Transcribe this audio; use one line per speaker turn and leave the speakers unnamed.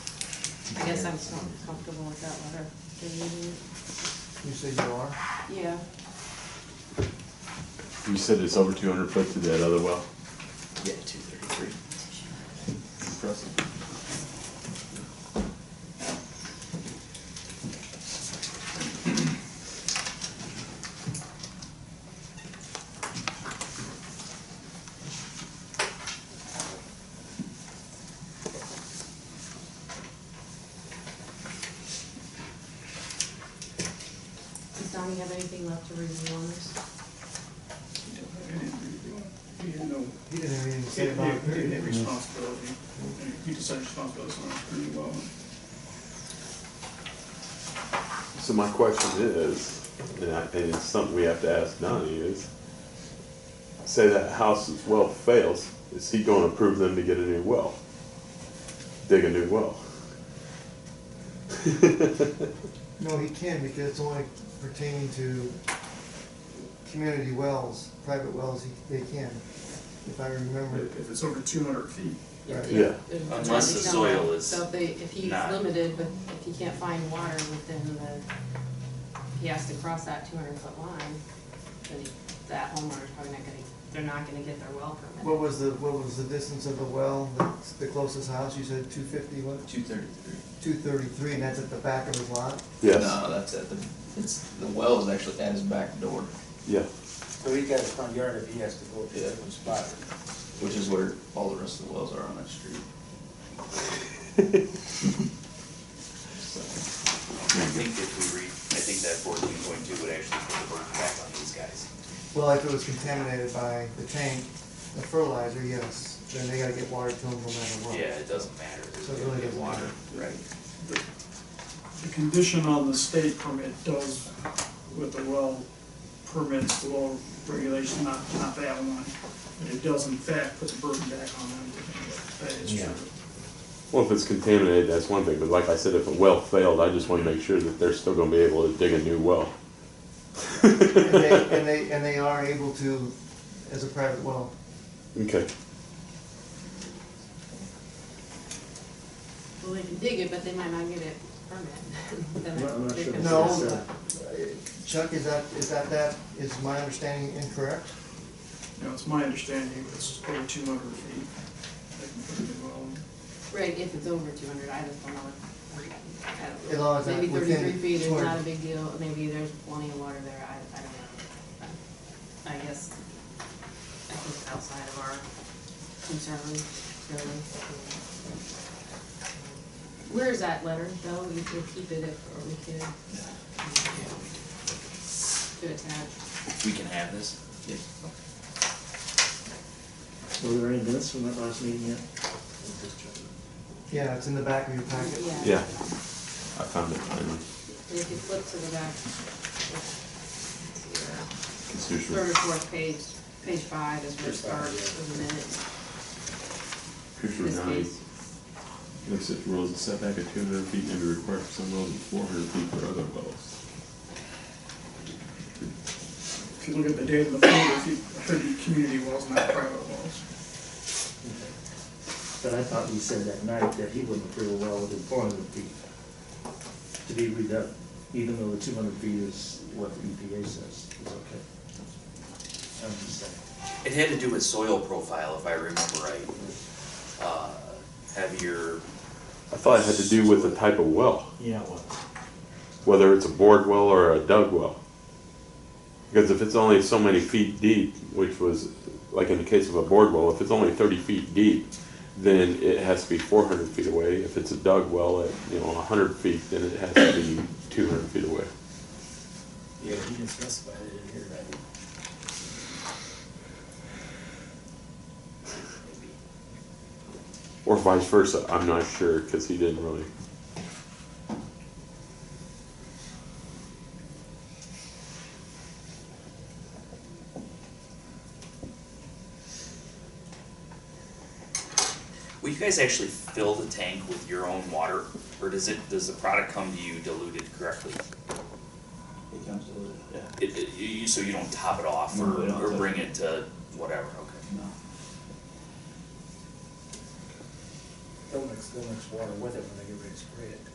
I guess I'm so comfortable with that letter. Do you need it?
You say you are?
Yeah.
You said it's over two hundred foot to that other well?
Yeah, two thirty-three.
Impressive.
Does Donnie have anything left to review on this?
He had no,
He didn't have anything to
he
say
had,
about it.
he had
did he?
responsibility, he decided responsibility, so pretty well.
So my question is, and I, and it's something we have to ask Donnie is, say that house's well fails, is he gonna approve them to get a new well? Dig a new well?
No, he can, because it's only pertaining to community wells, private wells, he- they can, if I remember.
If it's over two hundred feet,
Right.
they-
Yeah.
there's
Unless
gotta be
the
some
soil
way.
is
So if they, if he's
not-
limited, but if he can't find water within the, he has to cross that two hundred foot line, then he- that homeowner's probably not gonna, they're not gonna get their well
What
permit.
was the, what was the distance of the well, that's the closest house, you said two fifty, what,
Two thirty-three.
two thirty-three, and that's at the back of his lot?
Yes,
No, that's at the, it's, the well is actually at his back door,
yeah,
So he's got his front yard if he has to go to
Oh, Yeah.
that one spot.
which is where all the rest of the wells are on that street. So,
I think if we read, I think that fourteen point two would actually put the burden back on these guys.
Well, if it was contaminated by the tank, the fertilizer, yes, then they gotta get water to them no matter what.
Yeah, it doesn't matter.
So it really doesn't
Water.
matter.
Right.
the condition on the state permit does with the well permits, the well regulation, not, not that one. But it does in fact put the burden back on them. That is true.
well, if it's contaminated, that's one thing, but like I said, if a well failed, I just wanna make sure that they're still gonna be able to dig a new well.
And they, and they, and they are able to, as a private well.
Okay,
Well, they can dig it, but they might not get it permit. Then
Well, I'm not
they're
sure.
concerned
No,
about-
Chuck, is that, is that, that, is my understanding incorrect?
You know, it's my understanding it's over two hundred feet. They can put it in the well.
Right, if it's over two hundred, I just don't know. if- I don't know.
As long as that-
Maybe
within
thirty-three feet is
200.
not a big deal, maybe there's plenty of water there, I, I don't know. I I guess, I think it's outside of our concern, really. Where is that letter, though? We could keep it if, or we could um, do it attached.
We can have this? Yeah.
Were there any minutes from that last meeting yet?
Yeah, it's in the back of your packet.
Yeah.
yeah, I found it finally,
And if you flip to the back. Let's see there.
it's usual.
Third or fourth page, page five is where it
Page five,
starts, with the minutes.
Picture
This
nine,
case.
looks at rules and setback of two hundred feet may be required for some wells and four hundred feet for other wells.
If you look at the date of the folder, if you, thirty community wells, not private wells.
But I thought he said that night that he wouldn't approve a well within four hundred feet to be redone, even though the two hundred feet is what the EPA says is okay. I'm just saying.
It had to do with soil profile, if I remember right. Uh, Heavier,
I thought it had to do with the type of well,
Yeah, well.
whether it's a bored well or a dug well. Because if it's only so many feet deep, which was, like in the case of a bored well, if it's only thirty feet deep, then it has to be four hundred feet away. If it's a dug well at, you know, hundred feet, then it has to be two hundred feet away.
Yeah, he didn't specify it in here, right?
Or vice versa, I'm not sure, because he didn't really.
will you guys actually fill the tank with your own water? Or does it, does the product come to you diluted correctly?
It comes to it, yeah.
It, it, you- you, so you don't top it off
No,
or,
we don't
or
top
bring it to whatever, okay?
No.
They'll mix, they'll mix water with it when they get ready to spray.